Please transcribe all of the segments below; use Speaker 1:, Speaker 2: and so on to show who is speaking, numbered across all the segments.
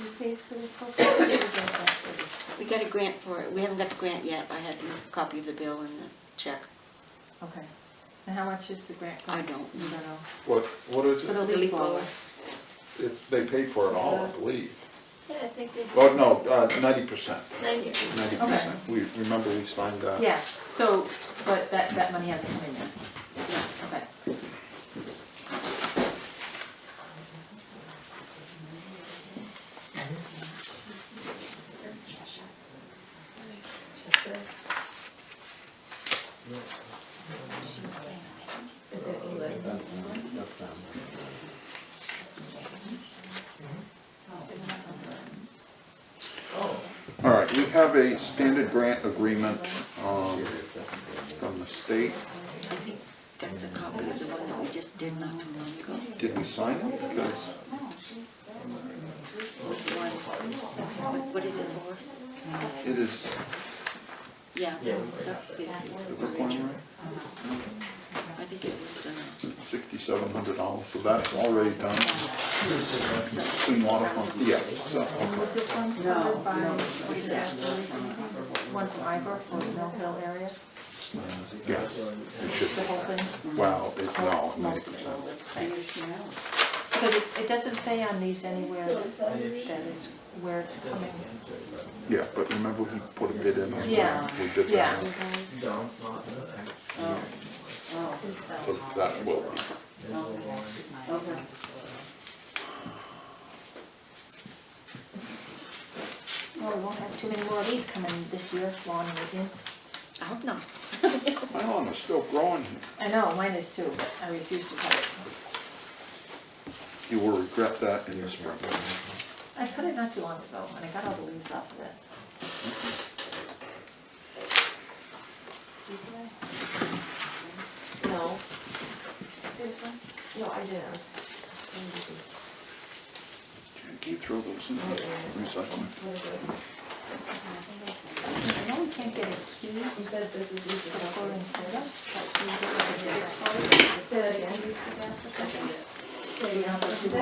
Speaker 1: You paid for this whole thing, or you got that for this?
Speaker 2: We got a grant for it. We haven't got the grant yet. I had a copy of the bill and the check.
Speaker 1: Okay, and how much is the grant?
Speaker 2: I don't
Speaker 1: You
Speaker 2: know.
Speaker 1: don't know.
Speaker 3: What, what is
Speaker 1: For Uh,
Speaker 3: it?
Speaker 1: the leaf blower.
Speaker 3: If They paid for it all, I believe.
Speaker 4: Yeah, I think they
Speaker 3: Oh, no, ninety percent,
Speaker 4: ninety percent.
Speaker 3: ninety percent. We, remember we signed that?
Speaker 1: Yeah, so, but that, that money hasn't come in yet. Okay.
Speaker 3: All right, we have a standard grant agreement, um, from the state.
Speaker 2: I think that's a copy of the one that we just did not too long ago.
Speaker 3: Did we sign it? Because
Speaker 2: What's the one? What- What is it for?
Speaker 3: it is,
Speaker 2: Yeah, that's, that's the
Speaker 3: did we sign
Speaker 2: original.
Speaker 3: right?
Speaker 2: I think it was, uh,
Speaker 3: Sixty-seven hundred dollars, so that's already done. Clean water fund, yes, so,
Speaker 1: Was this one covered by, what is that, one from Ivor for the Mill Hill area,
Speaker 3: yes, it should,
Speaker 1: the
Speaker 3: be.
Speaker 1: whole thing?
Speaker 3: wow, it, no, ninety
Speaker 1: Most of it.
Speaker 3: percent.
Speaker 1: Because it, it doesn't say on these anywhere that it's, where it's coming.
Speaker 3: Yeah, but remember he put a bid in on
Speaker 1: Yeah,
Speaker 3: that? Um, We did
Speaker 1: yeah.
Speaker 3: that, so that will be.
Speaker 1: Well, we won't have too many more of these coming this year, lawn maintenance.
Speaker 2: I hope not.
Speaker 3: My lawn is still growing.
Speaker 1: I know, mine is too, but I refuse to cut it.
Speaker 3: You will regret that in the spring.
Speaker 1: I cut it not too long ago, when I got all the leaves off of it.
Speaker 4: No. Seriously? No, I didn't.
Speaker 3: Can you throw those in the recycling?
Speaker 1: I know we can't get a key
Speaker 4: You said this is
Speaker 1: to the foreign photo,
Speaker 4: Say that again.
Speaker 1: but we don't have to do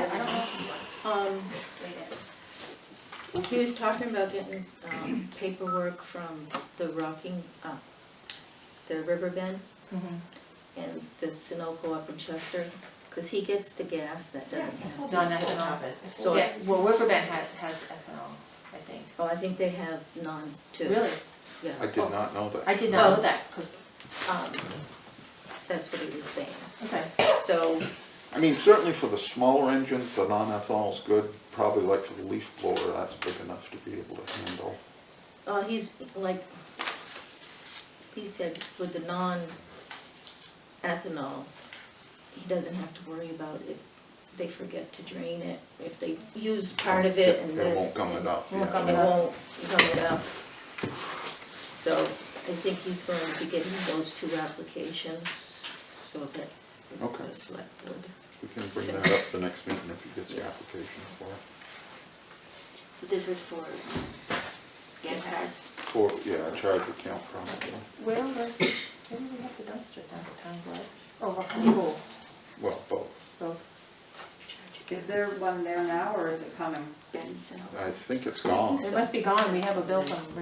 Speaker 1: that.
Speaker 5: Um, he was talking about getting, um, paperwork from the Rocking, uh, the River Bend
Speaker 2: Mm-hmm.
Speaker 5: and the Sunoco up in Chester, cause he gets the gas that doesn't have.
Speaker 1: Non-ethanol.
Speaker 5: So-
Speaker 1: Yeah, well, River Bend has, has ethanol, I think.
Speaker 5: Oh, I think they have none too.
Speaker 1: Really?
Speaker 5: Yeah,
Speaker 3: I did not know
Speaker 1: I
Speaker 3: that.
Speaker 1: did not know
Speaker 5: Oh.
Speaker 1: that, 'cause-
Speaker 5: um, that's what he was saying.
Speaker 1: okay.
Speaker 5: So,
Speaker 3: I mean, certainly for the smaller engines, the non-ethanol is good. Probably like for the leaf blower, that's big enough to be able to handle.
Speaker 5: uh, he's like, he said with the non-ethanol, he doesn't have to worry about if they forget to drain it, if they use part of it and
Speaker 3: It
Speaker 5: then.
Speaker 3: won't gum it up,
Speaker 5: Won't
Speaker 3: yeah.
Speaker 5: gum- it won't gum it up. So I think he's going to get those two applications so that
Speaker 3: Okay.
Speaker 5: the select board.
Speaker 3: We can bring that up the next meeting if he gets the application for it.
Speaker 2: So this is for gas cards?
Speaker 3: For, yeah, a charge account probably.
Speaker 1: Where was, where did we have the dumpster down at Town Glen? Oh, Rockland Pool,
Speaker 3: Well, both.
Speaker 1: so,
Speaker 6: Is there one there now, or is it coming?
Speaker 2: Benson.
Speaker 3: I think it's gone.
Speaker 1: Oh. it must be gone, we have a bill from